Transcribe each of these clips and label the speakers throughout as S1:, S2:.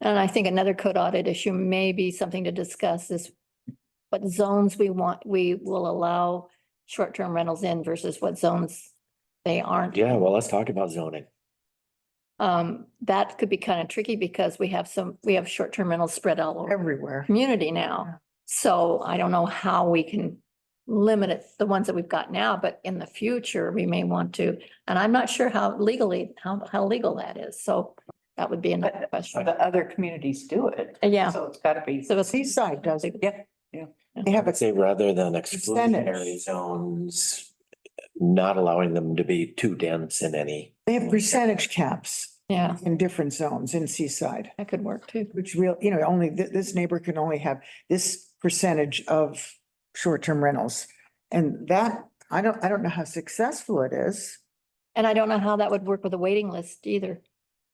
S1: And I think another code audit issue may be something to discuss is what zones we want, we will allow short-term rentals in versus what zones they aren't.
S2: Yeah, well, let's talk about zoning.
S1: Um, that could be kind of tricky because we have some, we have short-term rentals spread all over the
S3: everywhere.
S1: community
S3: Yeah.
S1: now. So I don't know how we can limit it, the ones that we've got now, but in the future, we may want to. And I'm not sure how legally, how, how legal that is. So that would be another question.
S3: The other communities do it.
S1: Yeah.
S3: So it's gotta be.
S1: So it's-
S3: Seaside does it, yeah.
S4: They have
S2: I'd
S4: a,
S2: say rather than exclusionary
S4: Incentives.
S2: zones, not allowing them to be too dense in any.
S4: they have percentage caps
S1: Yeah,
S4: in different zones in Seaside,
S1: that could work too.
S4: which real, you know, only, th- this neighbor can only have this percentage of short-term rentals. And that, I don't, I don't know how successful it is.
S1: And I don't know how that would work with a waiting list either,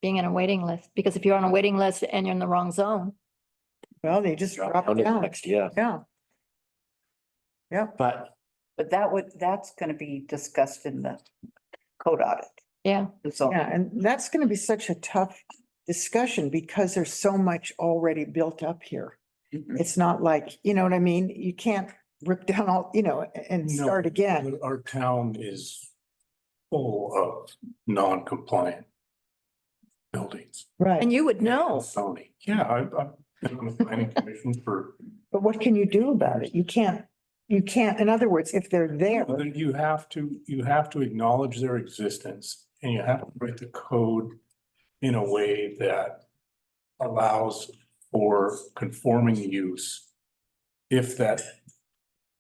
S1: being in a waiting list, because if you're on a waiting list and you're in the wrong zone,
S4: Well, they just
S2: Drop
S4: drop
S2: down to the
S4: down.
S2: next, yeah,
S4: Yeah. Yeah,
S2: but
S3: But that would, that's gonna be discussed in the code audit.
S1: yeah,
S3: And so,
S4: yeah, and that's gonna be such a tough discussion because there's so much already built up here.
S3: Mhm.
S4: It's not like, you know what I mean? You can't rip down all, you know, and
S5: No,
S4: start again.
S5: but Our town is full of non-compliant buildings.
S4: Right.
S1: and you would know.
S5: Sony, yeah, I, I've been on the planning commission for,
S4: But what can you do about it? You can't, you can't, in other words, if they're there,
S5: you have to, you have to acknowledge their existence and you have to write the code in a way that allows for conforming use if that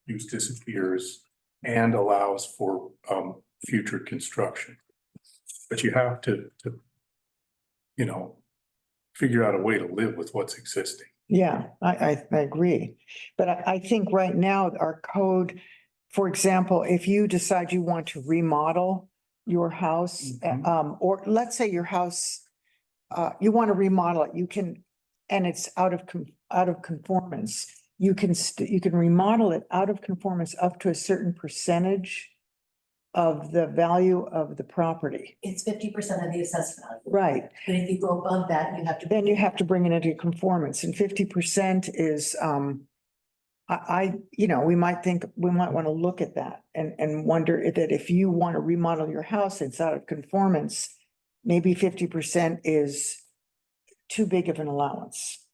S5: use disappears and allows for, um, future construction. But you have to, to, you know, figure out a way to live with what's existing.
S4: yeah, I, I, I agree. But I, I think right now our code, for example, if you decide you want to remodel your house,
S5: Mhm.
S4: um, or let's say your house, uh, you want to remodel it, you can, and it's out of, con- out of conformance. You can, st- you can remodel it out of conformance up to a certain percentage of the value of the property.
S6: it's fifty percent of the assessed value,
S4: Right.
S6: but if you go above that, you have to.
S4: then you have to bring it into conformance and fifty percent is, um, I, I, you know, we might think, we might want to look at that and, and wonder if- that if you want to remodel your house, it's out of conformance, maybe fifty percent is too big of an allowance.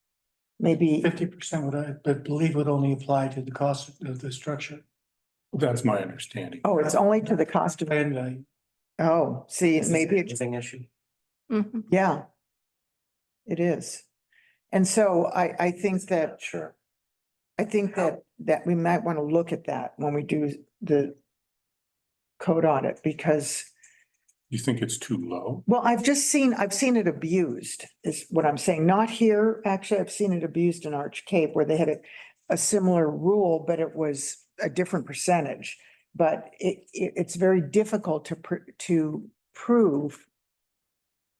S4: Maybe,
S7: Fifty percent would, I but believe would only apply to the cost of the structure
S5: That's my understanding.
S4: oh, it's only to the cost of,
S7: land value.
S4: oh, see,
S2: Is this
S4: maybe,
S2: an
S4: it-
S2: Housing issue?
S1: Mhm.
S4: yeah. It is. And so I, I think that
S2: Sure.
S4: I think that, that we might want to look at that when we do the code audit, because,
S5: You think it's too low?
S4: well, I've just seen, I've seen it abused, is what I'm saying. Not here, actually, I've seen it abused in Arch Cape where they had a, a similar rule, but it was a different percentage. But it, it, it's very difficult to, pr- to prove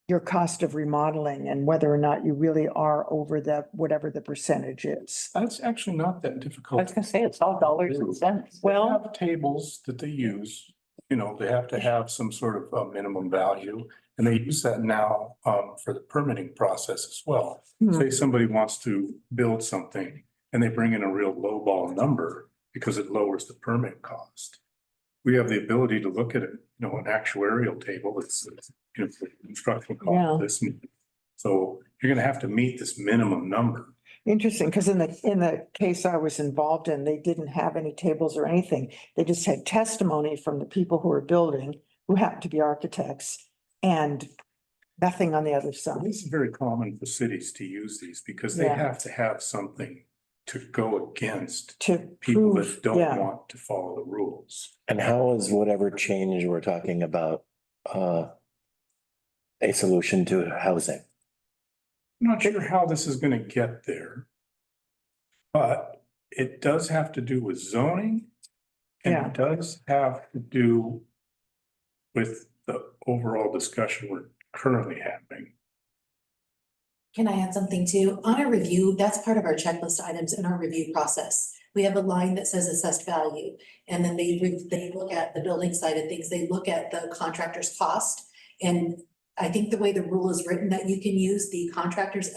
S4: your cost of remodeling and whether or not you really are over the, whatever the percentage is.
S5: That's actually not that difficult.
S3: I was gonna say, it's all dollars and cents.
S5: They have Tables that they use, you know, they have to have some sort of uh, minimum value. And they use that now um, for the permitting process as well.
S4: Hmm.
S5: Say somebody wants to build something and they bring in a real lowball number because it lowers the permit cost. We have the ability to look at it, you know, an actuarial table, it's, it's, you know, for construction
S4: Yeah.
S5: cost this. So you're gonna have to meet this minimum number.
S4: Interesting, because in the, in the case I was involved in, they didn't have any tables or anything. They just had testimony from the people who were building, who happened to be architects, and nothing on the other
S5: Well,
S4: side.
S5: This is very common for cities to use these because they
S4: Yeah.
S5: have to have something to go against
S4: To
S5: people
S4: prove,
S5: that don't
S4: yeah,
S5: want to follow the rules.
S2: And how is whatever change we're talking about, uh, a solution to housing?
S5: I'm Not sure how this is gonna get there. But it does have to do with zoning. And
S4: Yeah.
S5: it does have to do with the overall discussion we're currently having.
S6: Can I add something too? On our review, that's part of our checklist items in our review process. We have a line that says assessed value. And then they, re- they look at the building side of things, they look at the contractor's cost. And I think the way the rule is written, that you can use the contractor's